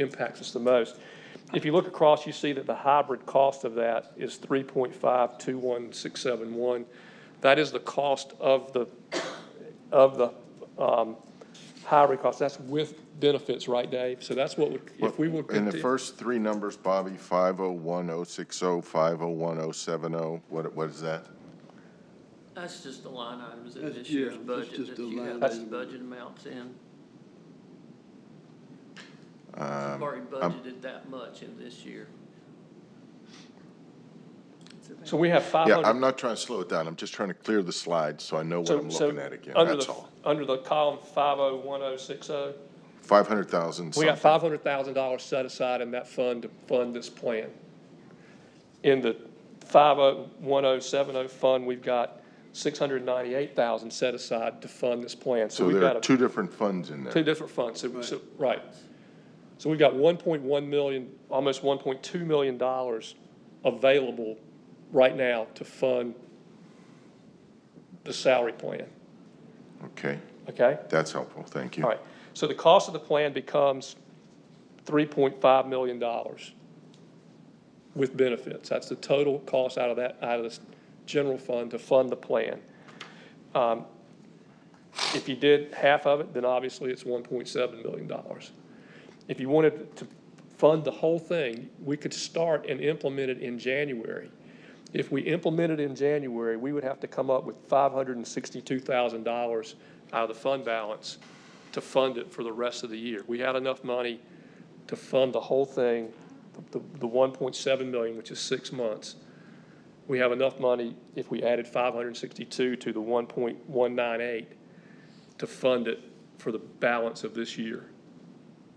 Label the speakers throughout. Speaker 1: impacts us the most. If you look across, you see that the hybrid cost of that is three point five two one six seven one. That is the cost of the, of the, um, hybrid cost. That's with benefits, right, Dave? So that's what would, if we were.
Speaker 2: In the
Speaker 1: conti-
Speaker 2: first three numbers, Bobby, 501060, 501070, what, what is that?
Speaker 3: That's just the line items in
Speaker 4: That's-
Speaker 3: this
Speaker 4: yeah,
Speaker 3: year's
Speaker 4: that's
Speaker 3: budget, that
Speaker 4: just the
Speaker 3: you have
Speaker 4: line
Speaker 3: those
Speaker 4: item.
Speaker 3: budget amounts in. You've
Speaker 2: Um,
Speaker 3: already
Speaker 2: I'm-
Speaker 3: budgeted that much in this year.
Speaker 1: So we have five
Speaker 2: Yeah,
Speaker 1: hundred.
Speaker 2: I'm not trying to slow it down. I'm just trying to clear the slide so I know what
Speaker 1: So-
Speaker 2: I'm
Speaker 1: so
Speaker 2: looking at again,
Speaker 1: under
Speaker 2: that's
Speaker 1: the-
Speaker 2: all.
Speaker 1: Under the column five oh one oh six oh,
Speaker 2: 500,000
Speaker 1: we got
Speaker 2: something.
Speaker 1: five hundred thousand dollars set aside in that fund to fund this plan. In the five oh one oh seven oh fund, we've got six hundred ninety-eight thousand set aside to fund this plan. So
Speaker 2: So
Speaker 1: we've
Speaker 2: there are
Speaker 1: got a-
Speaker 2: two different funds in
Speaker 1: two
Speaker 2: there.
Speaker 1: different funds, so, so, right. So we've got one point one million, almost one point two million dollars available right now to fund the salary plan,
Speaker 2: Okay,
Speaker 1: okay?
Speaker 2: that's helpful, thank you.
Speaker 1: All right, so the cost of the plan becomes three point five million dollars with benefits. That's the total cost out of that, out of this general fund to fund the plan. Um, If you did half of it, then obviously it's one point seven million dollars. If you wanted to fund the whole thing, we could start and implement it in January. If we implemented in January, we would have to come up with five hundred and sixty-two thousand dollars out of the fund balance to fund it for the rest of the year. We had enough money to fund the whole thing, the, the one point seven million, which is six months. We have enough money, if we added five hundred and sixty-two to the one point one nine eight, to fund it for the balance of this year.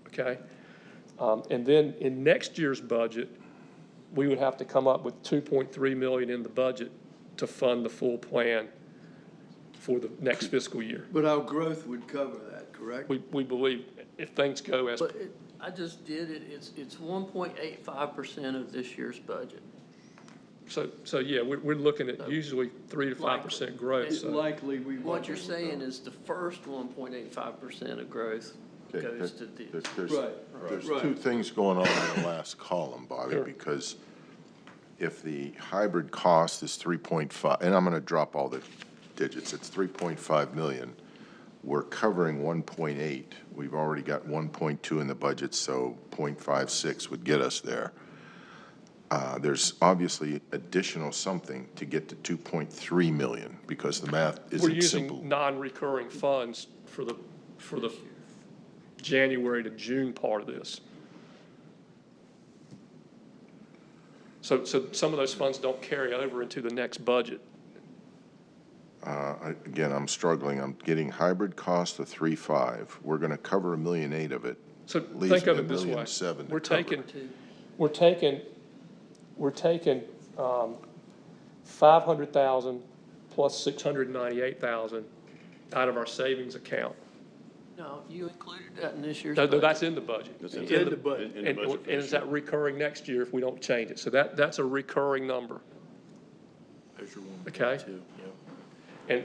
Speaker 1: Okay? Um, and then in next year's budget, we would have to come up with two point three million in the budget to fund the full plan for the next fiscal year.
Speaker 4: But our growth would cover that, correct?
Speaker 1: We, we believe if things go as,
Speaker 3: But it, I just did it, it's, it's one point eight five percent of this year's budget.
Speaker 1: so, so yeah, we're, we're looking at usually three to five percent growth,
Speaker 4: It's
Speaker 1: so.
Speaker 4: likely we won't.
Speaker 3: What you're saying is the first one point eight five percent of growth
Speaker 2: Okay,
Speaker 3: goes to
Speaker 2: there-
Speaker 3: the.
Speaker 2: There's, there's-
Speaker 4: Right,
Speaker 2: there's
Speaker 4: right.
Speaker 2: two things going on in the last column, Bobby,
Speaker 1: Sure.
Speaker 2: because if the hybrid cost is three point five, and I'm gonna drop all the digits, it's three point five million. We're covering one point eight. We've already got one point two in the budget, so 0.56 would get us there. Uh, there's obviously additional something to get to two point three million, because the math
Speaker 1: We're
Speaker 2: isn't simple.
Speaker 1: using non-recurring funds for the, for the January to June part of this. So, so some of those funds don't carry over into the next budget.
Speaker 2: Uh, I- Again, I'm struggling. I'm getting hybrid cost of three five. We're going to cover a million eight of it.
Speaker 1: So
Speaker 2: Leaves
Speaker 1: think of
Speaker 2: me a
Speaker 1: it this
Speaker 2: million
Speaker 1: way.
Speaker 2: seven to
Speaker 1: We're
Speaker 2: cover.
Speaker 1: taking,
Speaker 3: Two.
Speaker 1: we're taking, we're taking, um, five hundred thousand plus six hundred ninety-eight thousand out of our savings account.
Speaker 3: No, you included that in this year's
Speaker 1: No, no,
Speaker 3: budget.
Speaker 1: that's in the budget.
Speaker 4: in the budget.
Speaker 1: And, and is that recurring next year if we don't change it? So that, that's a recurring number. Okay? And,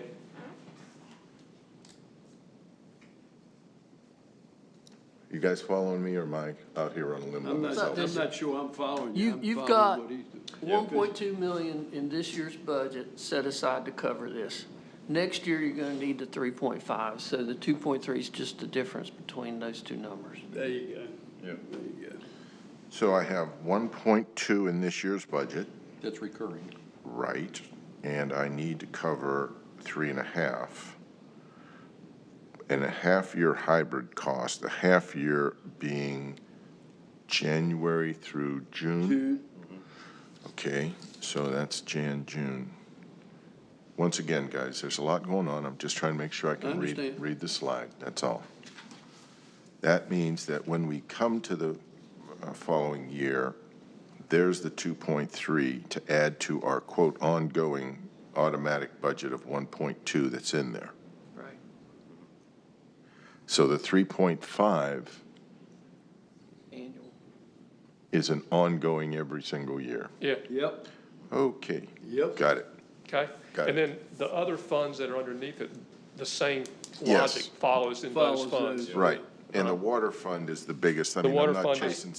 Speaker 2: You guys following me or am I out here on a limb? by
Speaker 4: I'm not,
Speaker 2: myself?
Speaker 4: I'm not sure I'm following
Speaker 3: You-
Speaker 4: you. I'm
Speaker 3: you've
Speaker 4: following
Speaker 3: got-
Speaker 4: what he's doing.
Speaker 3: One point two million in this year's budget set aside to cover this. Next year, you're gonna need the three point five, so the two point three is just the difference between those two numbers.
Speaker 4: There you go. There you go.
Speaker 2: So I have one point two in this year's budget,
Speaker 5: That's recurring.
Speaker 2: right? And I need to cover three and a half. And a half-year hybrid cost, the half-year being January through Mm-hmm.
Speaker 4: June,
Speaker 2: Okay, so that's Jan, June. Once again, guys, there's a lot going on. I'm just trying to make sure I can read,
Speaker 4: understand.
Speaker 2: read the slide, that's all. That means that when we come to the uh, following year, there's the 2.3 to add to our quote ongoing automatic budget of 1.2 that's in there.
Speaker 3: Right.
Speaker 2: So the 3.5
Speaker 3: Annual.
Speaker 2: is an ongoing every single year.
Speaker 1: yeah,
Speaker 4: yep,
Speaker 2: Okay,
Speaker 4: yep.
Speaker 2: got it.
Speaker 1: okay?
Speaker 2: Got
Speaker 1: And
Speaker 2: it.
Speaker 1: then the other funds that are underneath it, the same
Speaker 2: Yes.
Speaker 1: logic follows in those
Speaker 4: Follows
Speaker 1: funds.
Speaker 4: those.
Speaker 2: Right, And the water fund is the biggest, I
Speaker 1: The
Speaker 2: mean,
Speaker 1: water
Speaker 2: I'm not
Speaker 1: fund is-
Speaker 2: chasing